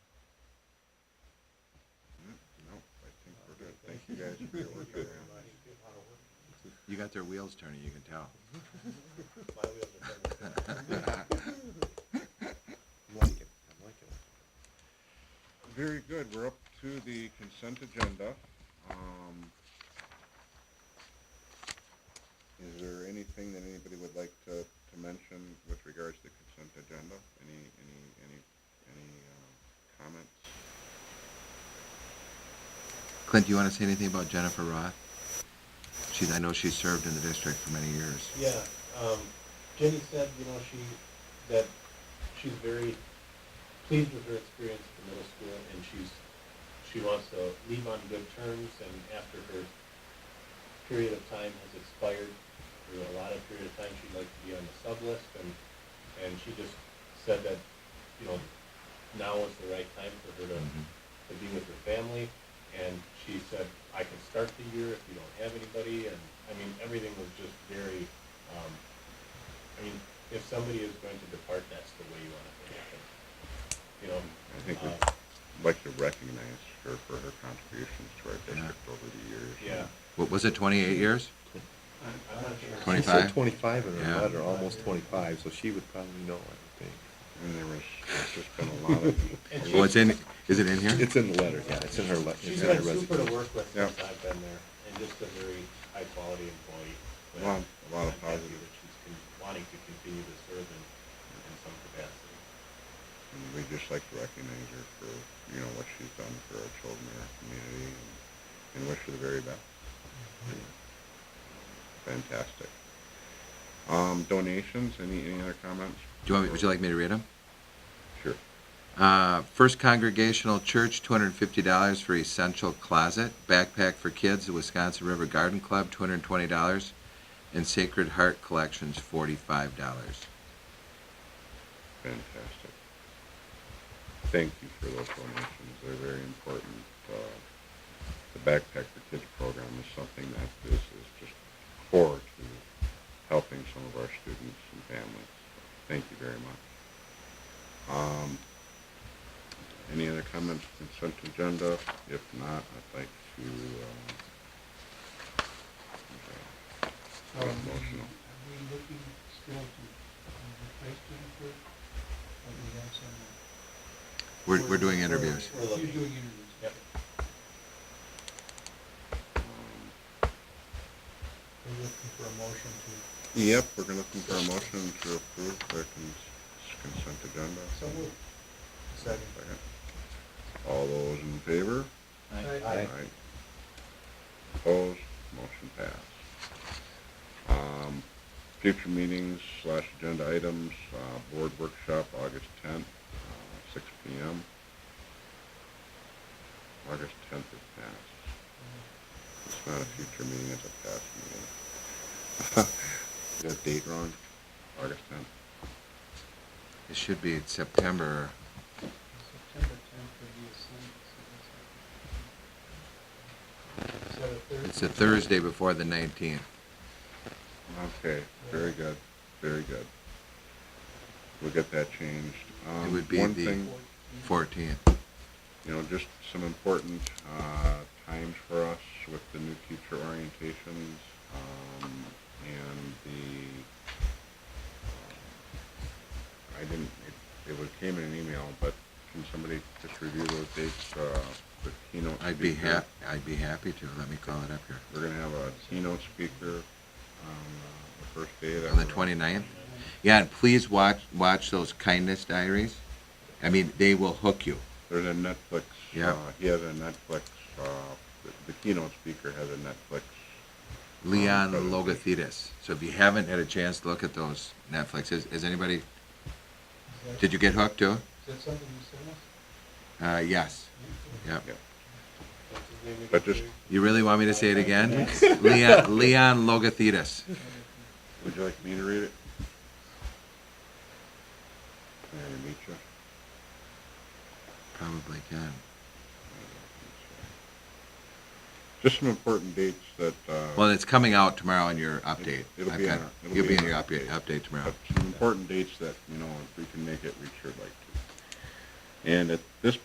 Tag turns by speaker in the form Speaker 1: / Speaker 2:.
Speaker 1: guys are good working around. You got their wheels turning, you can tell.
Speaker 2: Like it, I like it.
Speaker 3: Very good, we're up to the consent agenda. Um, Is there anything that anybody would like to, to mention with regards to the consent agenda? Any, any, any, any uh, comments?
Speaker 1: Clint, do you want to say anything about Jennifer Roth? She's, I know she served in the district for many years.
Speaker 2: Yeah, um, Jenny said, you know, she, that she's very pleased with her experience at the middle school, and she's, she wants to leave on good terms, and after her period of time has expired, through a lot of period of time, she'd like to be on the sub-list, and, and she just said that, you know, now is the right time for her to,
Speaker 3: Mm-hmm.
Speaker 1: Mhm.
Speaker 2: to be with her family, and she said, I can start the year if you don't have anybody, and, I mean, everything was just very, um, I mean, if somebody is going to depart, that's the way you want it to happen. You know,
Speaker 3: I think we'd
Speaker 2: uh,
Speaker 3: like to recognize her for her contributions to our district over the years.
Speaker 2: yeah,
Speaker 1: What, was it twenty-eight years?
Speaker 2: I'm not sure.
Speaker 1: Twenty-
Speaker 2: Twenty.
Speaker 1: She said 25?
Speaker 4: Twenty-five in
Speaker 1: Yeah.
Speaker 4: her letter, almost twenty-five, so she would probably know, I would
Speaker 3: And there was, there's just been a lot of,
Speaker 2: And
Speaker 1: Well, Oh, it's
Speaker 2: she's,
Speaker 1: in, is it in here?
Speaker 4: think. It's in the letter, yeah, it's in her letter.
Speaker 2: she's been super to work with
Speaker 3: Yeah.
Speaker 2: since I've been there, and just a very high-quality employee. but
Speaker 3: a lot, a lot
Speaker 2: I'm
Speaker 3: of
Speaker 2: happy
Speaker 3: positive
Speaker 2: that She's con- wanting to continue to serve in, in some capacity.
Speaker 3: And we'd just like to recognize her for, you know, what she's done for our children and our community and, and wish her the very best. Fantastic. Um, donations, any, any other comments?
Speaker 1: Do you want, me- would you like me to read them?
Speaker 3: Sure.
Speaker 1: Uh, First Congregational Church, two hundred and fifty dollars for essential closet, backpack for kids, the Wisconsin River Garden Club, two hundred and twenty dollars, and Sacred Heart Collections, forty-five dollars.
Speaker 3: Fantastic. Thank you for those donations, they're very important. Uh, The Backpack for Kids program is something that is, is just core to helping some of our students and families. Thank you very much. Um, Any other comments, consent agenda? If not, I'd like to, uh, um, okay,
Speaker 5: Are we
Speaker 3: get motional.
Speaker 5: looking still to um, replace Jennifer? Or we have some? uh,
Speaker 1: We're, we're doing interviews.
Speaker 2: We're looking.
Speaker 5: You're doing interviews.
Speaker 2: Yep.
Speaker 3: Um,
Speaker 5: We're looking for a motion to.
Speaker 3: Yep, we're gonna looking for a motion to approve the cons- consent agenda.
Speaker 5: So moved. Second. Uh,
Speaker 3: Second. All those in favor?
Speaker 5: Aye.
Speaker 3: Opposed, motion passed. Um, future meetings slash agenda items, uh, board workshop, August tenth, uh, six P M. August tenth is passed. It's not a future meeting, it's a past meeting. Got date wrong, August tenth.
Speaker 1: It should be September,
Speaker 5: September tenth would be a Sunday, so that's. Is that a Thursday?
Speaker 1: it's a Thursday before the nineteenth.
Speaker 3: Okay, very good, very good. We'll get that changed. Um,
Speaker 1: would be
Speaker 3: one
Speaker 1: the-
Speaker 3: thing-
Speaker 1: Fourteenth.
Speaker 3: you know, just some important uh, times for us with the new teacher orientations um, and the. um, I didn't. It, it was came in an email, but can somebody just review those dates? Uh, the keynote.
Speaker 1: I'd be
Speaker 3: speaker?
Speaker 1: hap, I'd be happy to. Let me call it up here.
Speaker 3: We're gonna have a keynote speaker on uh, the first day. that
Speaker 1: On the
Speaker 3: we're-
Speaker 1: 29th? Yeah, and please watch, watch those kindness diaries. I mean, they will hook you.
Speaker 3: There's a Netflix.
Speaker 1: Yeah.
Speaker 3: Uh, he has a Netflix. Uh, the, the keynote speaker has a Netflix.
Speaker 1: Leon
Speaker 3: Um,
Speaker 1: Logothetis. So if you haven't had a chance to look at those Netflix, has, has anybody,
Speaker 5: Is that-
Speaker 1: did you get hooked too?
Speaker 5: Is that something you sent us?
Speaker 1: Uh, yes,
Speaker 5: Yeah.
Speaker 1: yeah.
Speaker 3: Yeah.
Speaker 2: What's his name
Speaker 3: But
Speaker 2: again,
Speaker 3: just-
Speaker 2: Jerry?
Speaker 1: You really want me to say it again? Leon, Leon Logothetis.
Speaker 3: Would you like me to read it? Mary meet you.
Speaker 1: Probably can.
Speaker 3: Just some important dates that, uh,
Speaker 1: Well, it's coming out tomorrow in your update.
Speaker 3: It'll
Speaker 1: I've
Speaker 3: be in
Speaker 1: got-
Speaker 3: our- it'll
Speaker 1: You'll
Speaker 3: be
Speaker 1: be
Speaker 3: in
Speaker 1: in your
Speaker 3: our
Speaker 1: update, update tomorrow.
Speaker 3: have some important dates that, you know, if we can make it, we sure like to. And at this